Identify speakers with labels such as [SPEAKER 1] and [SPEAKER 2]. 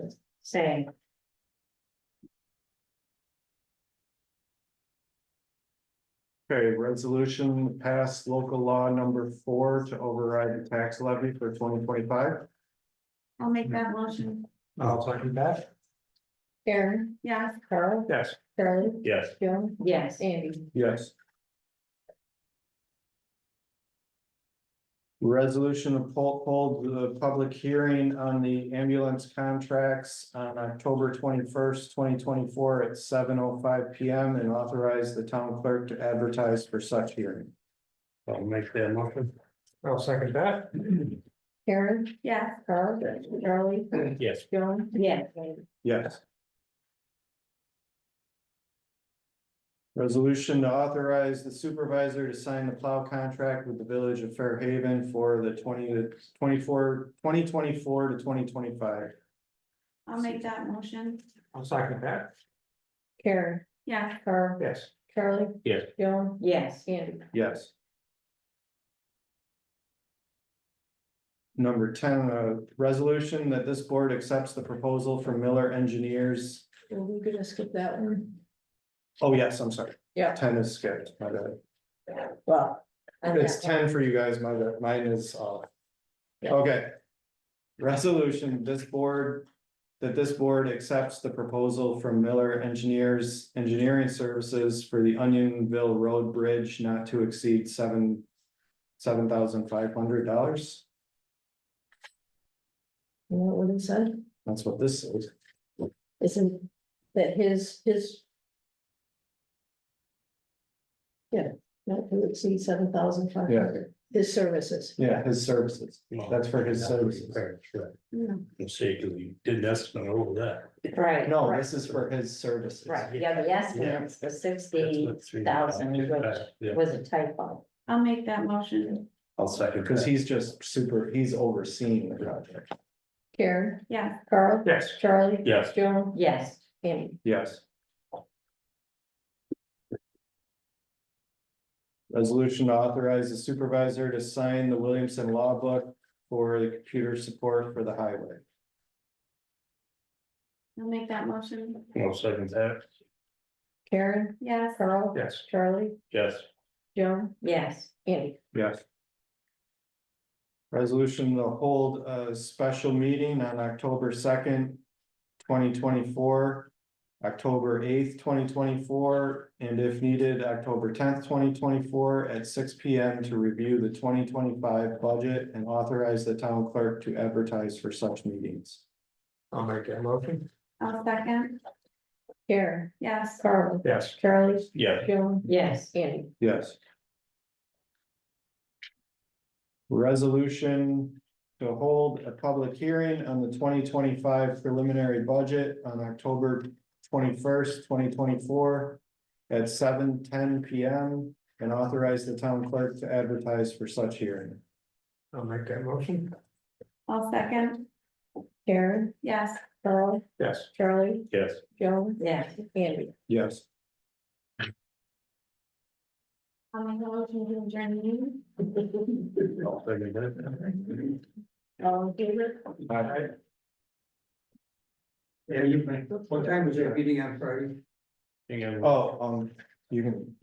[SPEAKER 1] say.
[SPEAKER 2] Okay, resolution passed local law number four to override the tax levy for twenty twenty-five.
[SPEAKER 1] I'll make that motion.
[SPEAKER 3] I'll second that.
[SPEAKER 4] Karen,
[SPEAKER 1] Yes.
[SPEAKER 4] Carl,
[SPEAKER 3] Yes.
[SPEAKER 4] Charlie,
[SPEAKER 3] Yes.
[SPEAKER 4] Joan,
[SPEAKER 1] Yes.
[SPEAKER 4] Andy.
[SPEAKER 2] Yes. Resolution to poll hold the public hearing on the ambulance contracts on October twenty-first, twenty twenty-four at seven oh five P M. And authorize the town clerk to advertise for such hearing.
[SPEAKER 3] I'll make that motion. I'll second that.
[SPEAKER 4] Karen,
[SPEAKER 1] Yes.
[SPEAKER 4] Carl, Charlie,
[SPEAKER 3] Yes.
[SPEAKER 4] Joan.
[SPEAKER 1] Yes.
[SPEAKER 4] Andy.
[SPEAKER 2] Yes. Resolution to authorize the supervisor to sign the plow contract with the village of Fairhaven for the twenty to 24 2024 to twenty twenty-five.
[SPEAKER 1] I'll make that motion.
[SPEAKER 3] I'll second that.
[SPEAKER 4] Karen,
[SPEAKER 1] Yes.
[SPEAKER 4] Carl,
[SPEAKER 3] Yes.
[SPEAKER 4] Charlie.
[SPEAKER 3] Yes.
[SPEAKER 4] Joan,
[SPEAKER 1] Yes.
[SPEAKER 4] Andy.
[SPEAKER 2] Yes. Number ten, a resolution that this board accepts the proposal from Miller Engineers.
[SPEAKER 4] Are we gonna skip that one?
[SPEAKER 2] Oh, yes, I'm sorry.
[SPEAKER 4] Yeah.
[SPEAKER 2] Ten is skipped, my bad.
[SPEAKER 4] Well. I'm
[SPEAKER 2] It's
[SPEAKER 4] not-
[SPEAKER 2] ten for you guys, my, bad. mine is off.
[SPEAKER 4] Yeah.
[SPEAKER 2] Okay. Resolution, this board, that this board accepts the proposal from Miller Engineers Engineering Services for the Onionville Road Bridge not to exceed seven, seven thousand five hundred dollars.
[SPEAKER 4] You know what it said?
[SPEAKER 2] That's what this is.
[SPEAKER 4] Isn't that his, his? Yeah, not to exceed seven thousand five hundred, his services.
[SPEAKER 2] Yeah, his services. That's for his services.
[SPEAKER 1] Mm,
[SPEAKER 3] Say, you didn't estimate over that.
[SPEAKER 1] Right.
[SPEAKER 2] No,
[SPEAKER 1] right,
[SPEAKER 2] this is for his services.
[SPEAKER 1] Right, yeah, the estimate is the sixty thousand, which was a typo. I'll make that motion.
[SPEAKER 3] I'll second.
[SPEAKER 2] Because he's just super, he's overseeing the project.
[SPEAKER 4] Karen,
[SPEAKER 1] Yeah.
[SPEAKER 4] Carl,
[SPEAKER 3] Yes.
[SPEAKER 4] Charlie.
[SPEAKER 3] Yes.
[SPEAKER 4] Joan,
[SPEAKER 1] Yes.
[SPEAKER 4] Andy.
[SPEAKER 2] Yes. Resolution to authorize the supervisor to sign the Williamson Law Book for the computer support for the highway.
[SPEAKER 1] I'll make that motion.
[SPEAKER 3] I'll second that.
[SPEAKER 4] Karen,
[SPEAKER 1] Yes.
[SPEAKER 4] Carl,
[SPEAKER 3] Yes.
[SPEAKER 4] Charlie,
[SPEAKER 3] Yes.
[SPEAKER 4] Joan,
[SPEAKER 1] Yes.
[SPEAKER 4] Andy.
[SPEAKER 2] Yes. Resolution to hold a special meeting on October second, twenty twenty-four. October eighth, twenty twenty-four, and if needed, October tenth, twenty twenty-four at six P M to review the twenty twenty-five budget and authorize the town clerk to advertise for such meetings.
[SPEAKER 3] I'll make that motion.
[SPEAKER 1] I'll second.
[SPEAKER 4] Karen,
[SPEAKER 1] Yes.
[SPEAKER 4] Carl,
[SPEAKER 3] Yes.
[SPEAKER 4] Charlie,
[SPEAKER 3] Yeah.
[SPEAKER 4] Joan,
[SPEAKER 1] Yes.
[SPEAKER 4] Andy.
[SPEAKER 2] Yes. Resolution to hold a public hearing on the twenty twenty-five preliminary budget on October twenty-first, twenty twenty-four at seven ten P M and authorize the town clerk to advertise for such hearing.
[SPEAKER 3] I'll make that motion.
[SPEAKER 1] I'll second.
[SPEAKER 4] Karen,
[SPEAKER 1] Yes.
[SPEAKER 4] Carl,
[SPEAKER 3] Yes.
[SPEAKER 4] Charlie,
[SPEAKER 3] Yes.
[SPEAKER 4] Joan,
[SPEAKER 1] Yes.
[SPEAKER 4] Andy.
[SPEAKER 2] Yes.
[SPEAKER 1] I'll make the motion to adjourn the meeting.
[SPEAKER 3] I'll second that.
[SPEAKER 4] All in favor?
[SPEAKER 5] Yeah, you, what time was your meeting on Friday?
[SPEAKER 3] Hang on.
[SPEAKER 2] Oh, um, you can